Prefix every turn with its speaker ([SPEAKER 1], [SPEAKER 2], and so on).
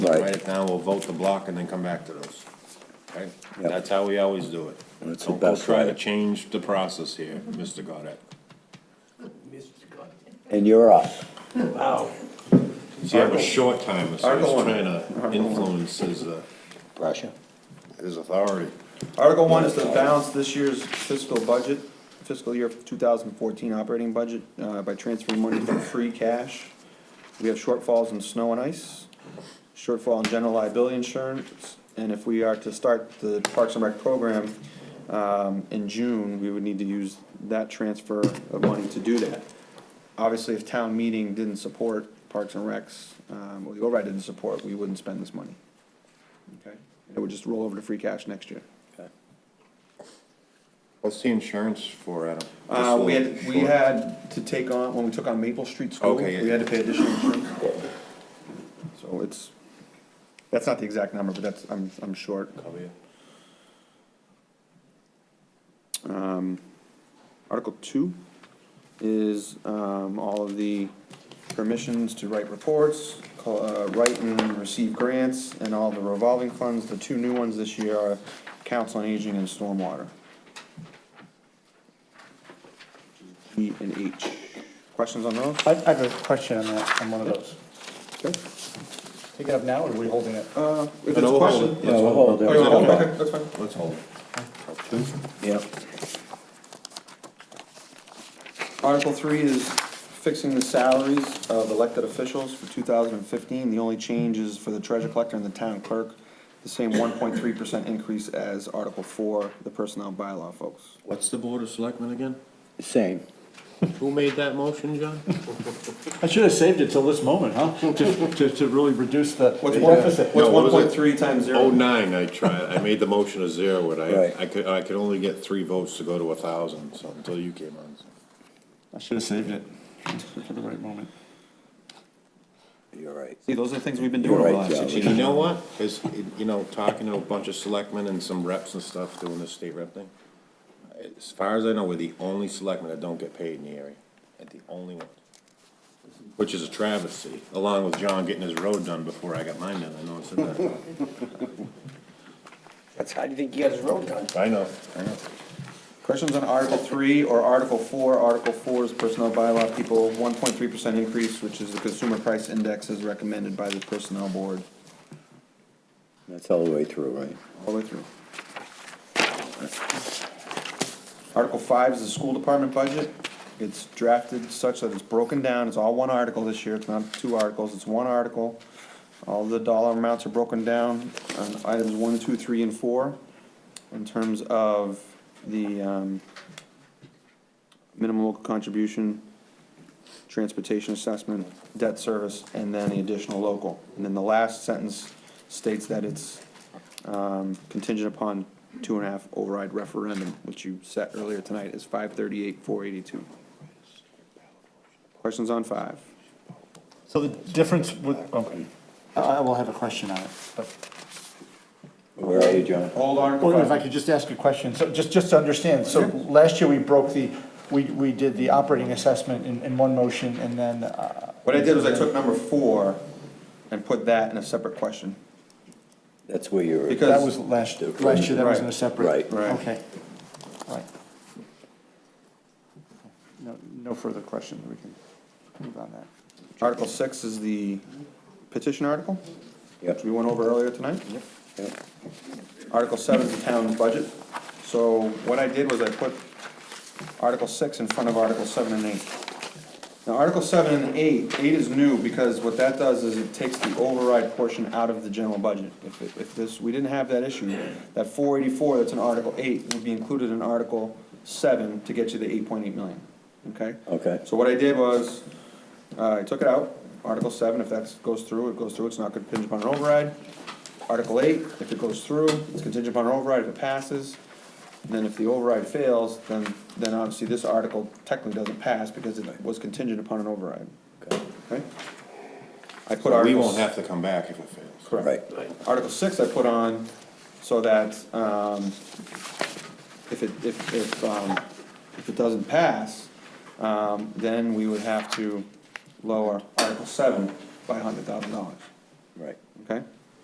[SPEAKER 1] Right.
[SPEAKER 2] Write it down, we'll vote the block and then come back to those. Okay?
[SPEAKER 1] Yep.
[SPEAKER 2] That's how we always do it.
[SPEAKER 1] And it's the
[SPEAKER 2] Don't go
[SPEAKER 1] best
[SPEAKER 2] try
[SPEAKER 1] way.
[SPEAKER 2] to change the process here, Mr. Goddard.
[SPEAKER 1] And you're up.
[SPEAKER 3] Wow.
[SPEAKER 2] See, I have a short timer, so
[SPEAKER 3] Article
[SPEAKER 2] he's
[SPEAKER 3] one.
[SPEAKER 2] trying to influence his, uh,
[SPEAKER 1] Pressure.
[SPEAKER 2] his authority.
[SPEAKER 3] Article one is to balance this year's fiscal budget, fiscal year two thousand fourteen operating budget, uh, by transferring money from free cash. We have shortfalls in snow and ice, shortfall in general liability insurance, and if we are to start the Parks and Rec program, um, in June, we would need to use that transfer of money to do that. Obviously, if town meeting didn't support Parks and Recs, um, or the override didn't support, we wouldn't spend this money. Okay? It would just roll over to free cash next year.
[SPEAKER 2] What's the insurance for, Adam?
[SPEAKER 3] Uh, we had, we had to take on, when we took on Maple Street School, we
[SPEAKER 2] Okay, yeah.
[SPEAKER 3] had to pay additional insurance. So it's, that's not the exact number, but that's, I'm, I'm short. Um, Article two is, um, all of the permissions to write reports, call- uh, write and receive grants, and all the revolving funds. The two new ones this year are Council on Aging and Stormwater. E and H. Questions on those?
[SPEAKER 4] I, I have a question on that, on one of those.
[SPEAKER 3] Okay.
[SPEAKER 4] Take it up now, or are we holding it?
[SPEAKER 3] Uh, if it's
[SPEAKER 2] No, we'll hold
[SPEAKER 3] a question.
[SPEAKER 2] it.
[SPEAKER 1] Yeah, we'll hold it.
[SPEAKER 3] Oh, you want to hold it?
[SPEAKER 2] Yeah.
[SPEAKER 3] Okay, that's fine.
[SPEAKER 2] Let's hold it.
[SPEAKER 1] Yep.
[SPEAKER 3] Article three is fixing the salaries of elected officials for two thousand and fifteen. The only change is for the treasurer collector and the town clerk, the same one point three percent increase as Article four, the personnel bylaw folks.
[SPEAKER 2] What's the Board of Selectmen again?
[SPEAKER 1] Same.
[SPEAKER 2] Who made that motion, John?
[SPEAKER 4] I should have saved it till this moment, huh? To, to, to really reduce the the
[SPEAKER 3] What's one,
[SPEAKER 4] deficit.
[SPEAKER 3] what's
[SPEAKER 2] No, what
[SPEAKER 3] one
[SPEAKER 2] was
[SPEAKER 3] point
[SPEAKER 2] it?
[SPEAKER 3] three times
[SPEAKER 2] Oh,
[SPEAKER 3] zero?
[SPEAKER 2] nine, I tried, I made the motion of zero, but I,
[SPEAKER 1] Right.
[SPEAKER 2] I could, I could only get three votes to go to a thousand, so, until you came on. so.
[SPEAKER 4] I should have saved it for the right moment.
[SPEAKER 1] You're right.
[SPEAKER 3] See, those are the things we've been
[SPEAKER 1] You're
[SPEAKER 3] doing over the
[SPEAKER 1] right,
[SPEAKER 3] last six
[SPEAKER 1] Charlie.
[SPEAKER 2] And
[SPEAKER 3] years.
[SPEAKER 2] you know what? Is, you know, talking to a bunch of selectmen and some reps and stuff doing the state rep thing. As far as I know, we're the only selectmen that don't get paid in the area, and the only ones. Which is a travesty, along with John getting his road done before I got mine done, I know it's that.
[SPEAKER 1] That's how you think you got his road done.
[SPEAKER 2] I know, I know.
[SPEAKER 3] Questions on Article three or Article four? Article four is personnel bylaw, people, one point three percent increase, which is the consumer price index as recommended by the personnel board,
[SPEAKER 1] That's all the way through, right?
[SPEAKER 3] all the way through. Article five is the school department budget. It's drafted such that it's broken down, it's all one article this year, it's not two articles, it's one article. All the dollar amounts are broken down on items one, two, three, and four in terms of the, um, minimum local contribution, transportation assessment, debt service, and then the additional local. And then the last sentence states that it's um, contingent upon two and a half override referendum, which you set earlier tonight is five thirty-eight, four eighty-two. Questions on five?
[SPEAKER 4] So the difference with, okay, I, Uh, I will have a question on it, but.
[SPEAKER 1] Where are you, John?
[SPEAKER 3] Old
[SPEAKER 4] Well, if I could just ask a question, so just, just to understand, so last year we broke the, we, we did the operating assessment in, in one motion, and then, uh.
[SPEAKER 3] What I did was I took number four and put that in a separate question.
[SPEAKER 1] That's where you're.
[SPEAKER 3] Because-
[SPEAKER 4] That was last, last year, that was in a separate.
[SPEAKER 1] Right.
[SPEAKER 3] Right.
[SPEAKER 4] Okay, right. No, no further questions, we can move on that.
[SPEAKER 3] Article six is the petition article, which
[SPEAKER 1] Yep,
[SPEAKER 3] we went over earlier tonight.
[SPEAKER 1] yep.
[SPEAKER 3] Article seven is the town's budget. So what I did was I put Article six in front of Article seven and eight. Now, Article seven and eight, eight is new because what that does is it takes the override portion out of the general budget. If, it- if this, we didn't have that issue, that four eighty-four that's in Article eight would be included in Article seven to get you the eight point eight million, okay?
[SPEAKER 1] Okay.
[SPEAKER 3] So what I did was, uh, I took it out, Article seven, if that goes through, it goes through, it's not contingent upon an override. Article eight, if it goes through, it's contingent upon an override, if it passes. And then if the override fails, then, then obviously this article technically doesn't pass because it was contingent upon an override,
[SPEAKER 1] Okay.
[SPEAKER 3] okay? I put
[SPEAKER 2] But we
[SPEAKER 3] Article,
[SPEAKER 2] won't
[SPEAKER 3] s-
[SPEAKER 2] have to come back if it fails.
[SPEAKER 1] Right.
[SPEAKER 3] correct. Article six I put on so that, um, if it, if, if, um, if it doesn't pass, um, then we would have to lower Article seven by a hundred thousand dollars.
[SPEAKER 1] Right.
[SPEAKER 3] okay?